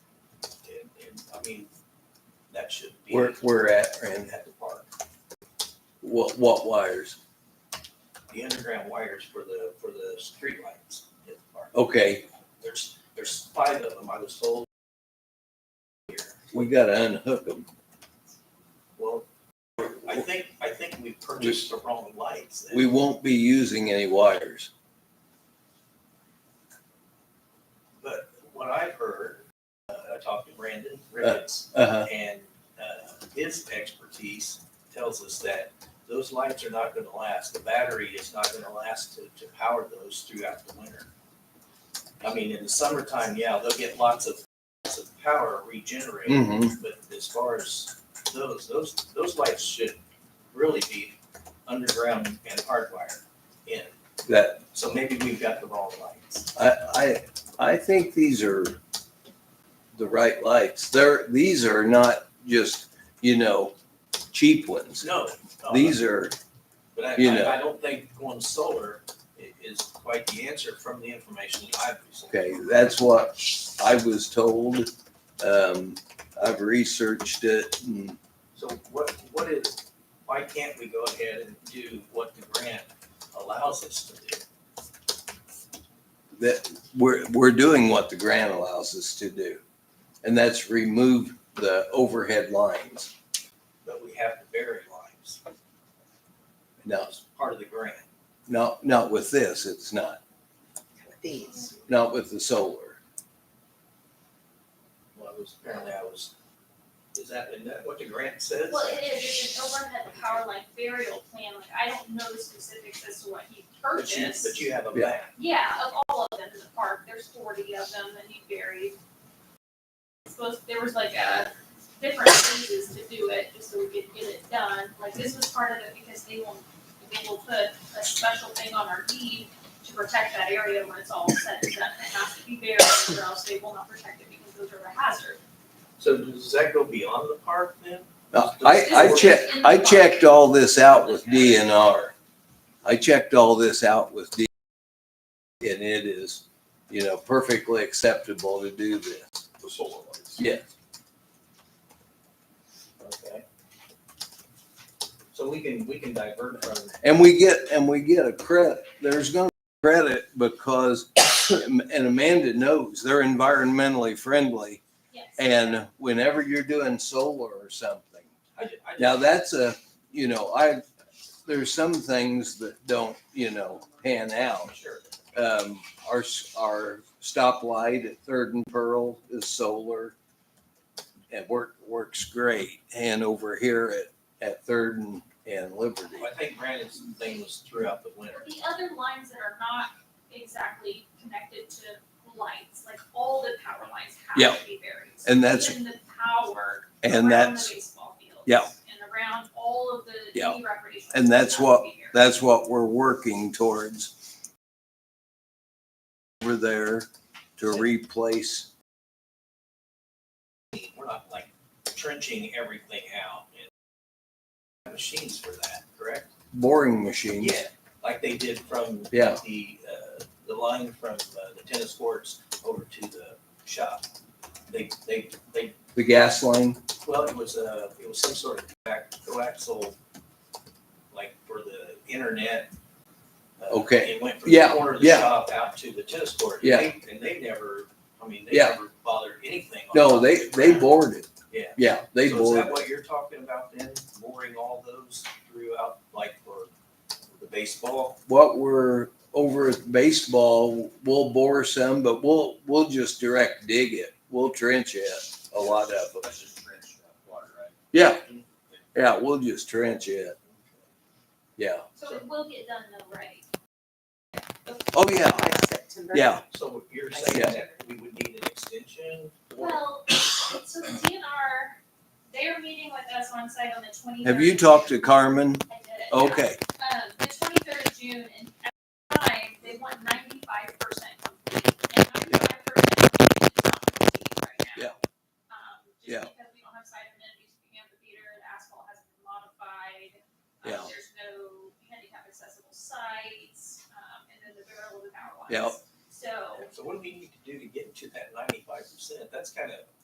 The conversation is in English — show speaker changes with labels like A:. A: I mean, that should be.
B: Where, where at,
A: And
B: and
A: at the park,
B: what, what wires?
A: the underground wires for the, for the streetlights at the park.
B: Okay,
A: There's, there's five of them I was told. Here,
B: we gotta unhook them.
A: well, I think, I think we purchased the wrong lights. then.
B: We won't be using any wires.
A: But what I've heard, uh, I talked to Brandon Ricketts,
B: Uh-huh,
A: and uh, his expertise tells us that those lights are not going to last. The battery is not going to last to, to power those throughout the winter. I mean, in the summertime, yeah, they'll get lots of, lots of power regenerated,
B: hmm
A: but as far as those, those, those lights should really be underground and hardwired in.
B: that,
A: So maybe we've got the wrong lights.
B: I, I, I think these are the right lights. They're, these are not just, you know, cheap ones.
A: No. no,
B: These are,
A: But I,
B: You know.
A: I, I don't think going solar i- is quite the answer from the information that I've received.
B: okay, that's what I was told. Um, I've researched it and
A: So what, what is, why can't we go ahead and do what the grant allows us to do?
B: that we're, we're doing what the grant allows us to do. And that's remove the overhead lines.
A: But we have to bury lines.
B: Now,
A: That's part of the grant.
B: not, not with this, it's not,
C: These.
B: not with the solar.
A: Well, I was, apparently I was, is that, isn't that what the grant says?
D: Well, it is, it's an overhead power like burial plan, like I don't know the specifics as to what he
A: But you,
D: purchased.
A: but you have a
B: Yeah.
A: map.
D: Yeah, of all of them in the park, there's forty of them that he buried. Suppose there was like a different phases to do it, just so we could get it done, like this was part of it because they will, they will put a special thing on our deed to protect that area when it's all said and done, it has to be buried, or else they will not protect it because those are a hazard.
A: So does that go beyond the park then?
B: Now, I, I checked, I checked all this out with DNR. I checked all this out with D. And it is, you know, perfectly acceptable to do this.
A: The solar lights.
B: Yes.
A: Okay. So we can, we can divert from
B: And we get, and we get a credit. There's gonna be credit because, and Amanda knows, they're environmentally friendly.
D: Yes.
B: And whenever you're doing solar or something,
A: I ju- I just-
B: now that's a, you know, I, there's some things that don't, you know, pan out.
A: Sure.
B: Um, our, s- our stoplight at Third and Pearl is solar. It work, works great. And over here at, at Third and, and Liberty.
A: I think Brandon's thing was throughout the winter.
D: The other lines that are not exactly connected to lights, like all the power lines
B: Yeah.
D: have to be buried. So
B: And that's-
D: Even the power around
B: And
D: the
B: that's,
D: baseball fields.
B: Yeah.
D: And around all of the
B: Yeah.
D: any recreation.
B: And that's
D: have to
B: what-
D: be buried.
B: that's what we're working towards. Over there to replace
A: We're not like trenching everything out and have machines for that, correct?
B: boring machines.
A: Like they did from
B: Yeah.
A: the, uh, the line from uh, the tennis courts over to the shop. They, they, they,
B: The gas line,
A: well, it was, uh, it was some sort of back, coaxial, like for the internet. Uh,
B: Okay.
A: It went from the
B: Yeah,
A: corner of the
B: yeah.
A: shop out to the tennis court.
B: Yeah.
A: They- And they never, I mean, they
B: Yeah.
A: never bothered anything. on top
B: no,
A: of
B: they,
A: it.
B: they bored it.
A: Yeah.
B: Yeah, they
A: So is
B: bored.
A: that
B: it.
A: what you're talking about then, boring all those throughout, like for the baseball?
B: What we're over at baseball, we'll bore some, but we'll, we'll just direct dig it. We'll trench it, a lot of them.
A: That's just trench water, right?
B: Yeah, yeah, we'll just trench it. Yeah.
D: So it will get done though, right?
B: Oh, yeah,
C: By September.
B: yeah.
A: So you're
C: I
A: saying
B: see.
A: that we would need an extension? or-
D: Well, so the DNR, they're meeting with us on site on the twenty.
B: Have you talked to Carmen?
D: I did.
B: Okay,
D: um, the twenty-third of June, and at the time, they want ninety-five percent complete, and ninety-five percent is not complete right now.
B: Yeah.
D: Um,
B: Yeah.
D: just because we don't have site amenities, we have the theater, the asphalt hasn't been modified. um,
B: Yeah.
D: There's no handicap accessible sites, um, and then the barrel of the power lines.
B: Yeah.
D: So,
A: So what do we need to do to get to that ninety-five percent? That's kind of